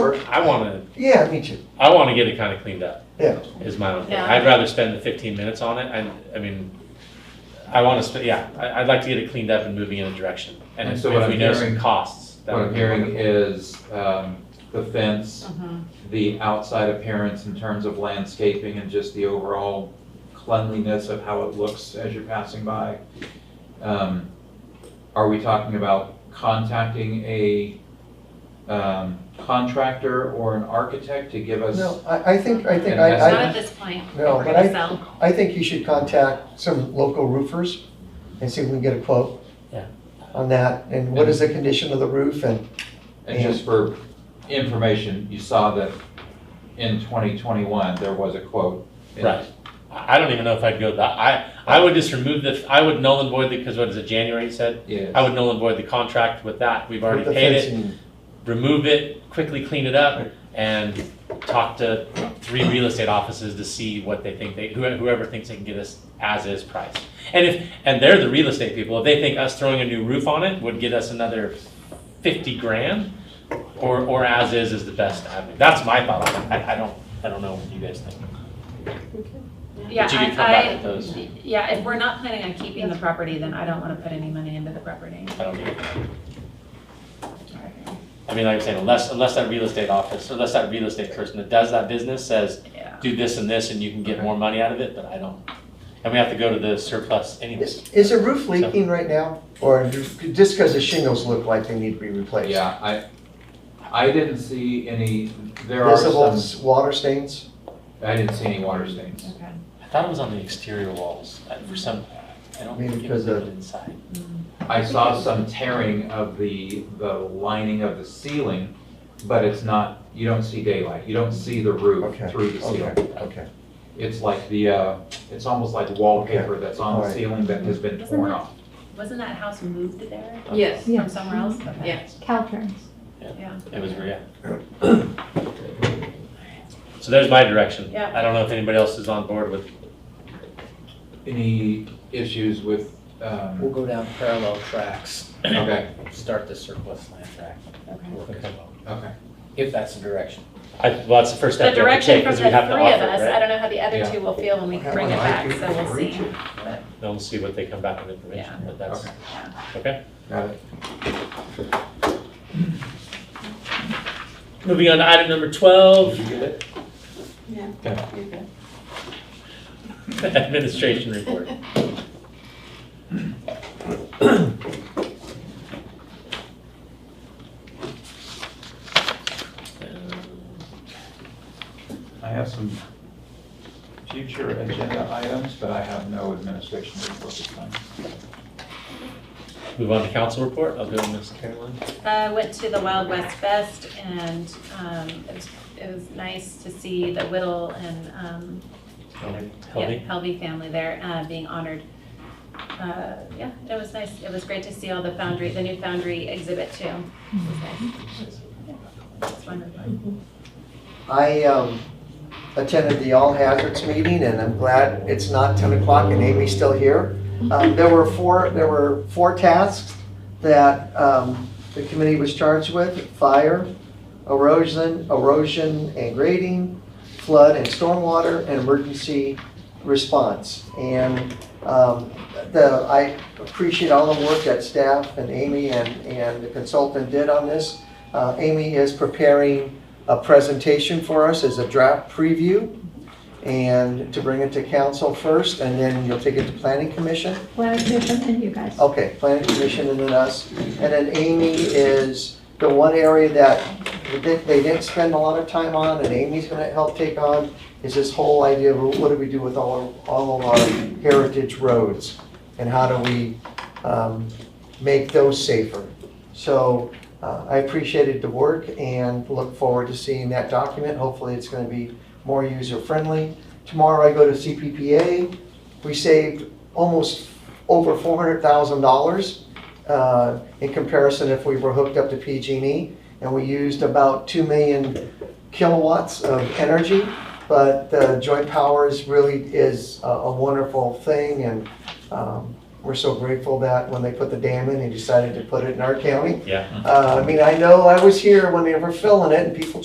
I wanna, Yeah, me too. I wanna get it kinda cleaned up, Yeah. is my own thing. Yeah. I'd rather spend the fifteen minutes on it, I, I mean, I wanna spend, yeah, I, I'd like to get it cleaned up and moving in a direction. And And if so if what we I'm know some hearing- costs. that What would I'm be hearing wonderful. Mm-hmm. is um, the fence, Mhm. the outside appearance in terms of landscaping and just the overall cleanliness of how it looks as you're passing by. Um, Are we talking about contacting a um, contractor or an architect to give us? No, I, I think, I think, And Not I, at I, this point. No, We're but gonna I- sell. I think you should contact some local roofers and see if we can get a quote. Yeah. On that, and what is the condition of the roof and, And just for information, you saw that in 2021, there was a quote. in- Right. I I don't even know if I'd go that, I, I would just remove the, I would null and void the, because what is it, January you said? Yes. I would null and void the contract with that, we've already with the paid it. fencing. remove it, quickly clean it up, and talk to three real estate offices to see what they think they, whoever, whoever thinks they can get us as is price. And if, and they're the real estate people, if they think us throwing a new roof on it would get us another fifty grand, or, or as is is the best avenue, that's my thought on it, I, I don't, I don't know what you guys think. Yeah, But you can come back I, with those, I, yeah, if we're not planning on keeping the property, then I don't want to put any money into the property. I don't know. I mean, like I'm saying, unless, unless that real estate office, unless that real estate person that does that business says, Yeah. do this and this and you can get more money out of it, but I don't. And we have to go to the surplus anyways. Is, is the roof leaking right now? Or do- just because the shingles look like they need to be replaced? Yeah, I, I didn't see any, there are Visible s- some, water stains? I didn't see any water stains. Okay. I thought it was on the exterior walls uh, for some, I don't Maybe think it because was of- inside. I saw some tearing of the, the lining of the ceiling, but it's not, you don't see daylight. You don't see the roof Okay, through the okay, ceiling. okay. It's like the, uh, it's almost like wallpaper that's on the Alright. ceiling that has been Isn't torn that- off. Wasn't that house moved there Yes. from somewhere else? Okay. Yes. Caltrans. Yeah. It was, yeah. So there's my direction. Yeah. I don't know if anybody else is on board with, Any issues with, We'll um, go down parallel tracks, okay, start the surplus land track, Okay. work as well, okay. if that's the direction. I, well, that's the first The step we have to direction take from the because three we of have to us, offer, it, I right? don't know how the other Yeah. two will feel when we bring it back, so we'll see. Then we'll see what they come back with information, Yeah. but that's, Okay. Yeah. okay. Got it. Moving on to item number twelve, Did you get it? Yeah. Okay. You're good. administration report. Uh, I have some future agenda items, but I have no administration report this time. Move on to council report. I'll go with Ms. Caroline. I Uh, went to the Wild West Fest and um, it was, it was nice to see the Whittle and um, yeah, Helby. Helvey family there uh, being honored. Uh, Yeah, it was nice. It was great to see all the Foundry, the new Foundry exhibit too. It was nice. It was wonderful. I um, attended the All Hazards meeting, and I'm glad it's not 10 o'clock and Amy's still here. Um, There were four, there were four tasks that um, the committee was charged with, fire, erosion, erosion and grading, flood and stormwater, and emergency response. And um, the, I appreciate all the work that staff and Amy and, and the consultant did on this. Uh, Amy is preparing a presentation for us as a draft preview and to bring it to council first, and then you'll take it to planning commission. Well, different than you guys. Okay, planning commission and then us. And then Amy is the one area that we didn't- they didn't spend a lot of time on and Amy's gonna help take on is this whole idea of what do we do with all, our- all of our heritage roads? And how do we um, make those safer? So uh, I appreciated the work and look forward to seeing that document. Hopefully, it's gonna be more user-friendly. Tomorrow, I go to CPPA. We saved almost over four hundred thousand dollars uh, in comparison if we were hooked up to PG&E. And we used about two million kilowatts of energy. But the joint powers really is a- a wonderful thing and um, we're so grateful that when they put the dam in, they decided to put it in our county. Yeah. Uh, I mean, I know I was here when they were filling it and people